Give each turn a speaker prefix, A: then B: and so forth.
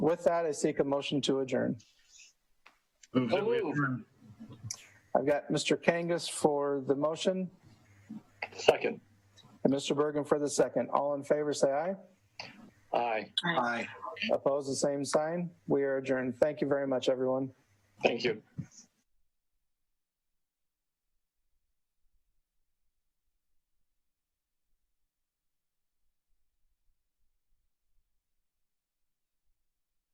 A: With that, I seek a motion to adjourn.
B: Move that we
C: Move.
B: adjourn.
A: I've got Mr. Kangas for the motion
C: Second.
A: and Mr. Bergen for the second. All in favor, say aye.
C: Aye.
B: Aye.
A: Opposed, the same sign. We are adjourned. Thank you very much, everyone.
C: Thank you.